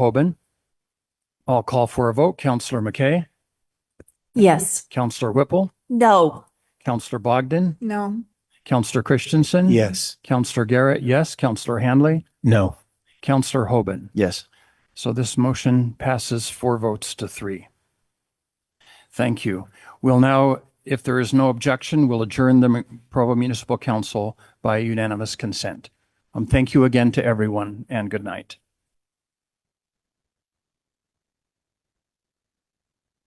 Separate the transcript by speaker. Speaker 1: Hoban. I'll call for a vote. Counselor McKay,
Speaker 2: Yes.
Speaker 1: Counselor Whipple,
Speaker 2: No.
Speaker 1: Counselor Bogdan,
Speaker 2: No.
Speaker 1: Counselor Christensen.
Speaker 3: Yes.
Speaker 1: Counselor Garrett, yes. Counselor Hanley,
Speaker 3: No.
Speaker 1: Counselor Hoban.
Speaker 3: Yes.
Speaker 1: So this motion passes four votes to three. Thank you. We'll now, if there is no objection, we'll adjourn the Mu- Provo Municipal Council by unanimous consent. Um, thank you again to everyone and good night.